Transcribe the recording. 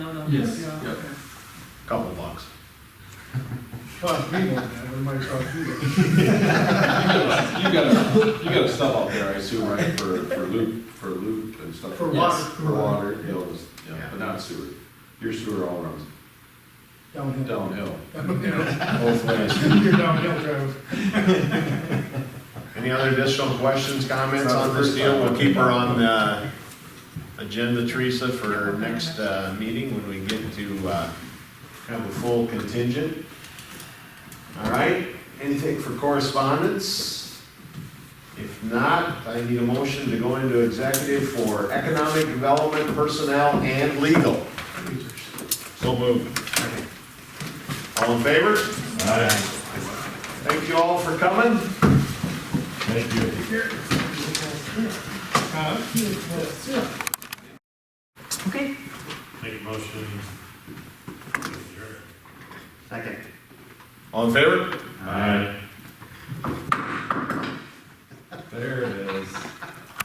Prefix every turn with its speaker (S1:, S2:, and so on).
S1: Yes,
S2: Yeah.
S1: yep. Couple bucks.
S2: Cost me more than that, it might cost you that.
S1: You got a, you got a stuff out there, I assume, right, for, for loop, for loop and stuff?
S2: For
S1: Yes,
S2: water.
S1: For water, hills, yeah,
S2: Yeah.
S1: but not sewer. Your sewer all runs
S2: Downhill.
S1: downhill.
S2: Downhill.
S1: Both ways.
S2: You're downhill, Travis.
S3: Any other additional questions, comments
S1: Not
S3: on
S1: the
S3: this
S1: first
S3: deal?
S1: time.
S3: We'll keep her on uh, the agenda, Teresa, for our next uh, meeting when we get to uh, have a full contingent. All right, anything for correspondence? If not, I need a motion to go into executive for economic development, personnel, and legal. So moved. All in favor? Thank you all for coming.
S4: Make a motion. to adjourn.
S3: All in favor?
S4: Aye.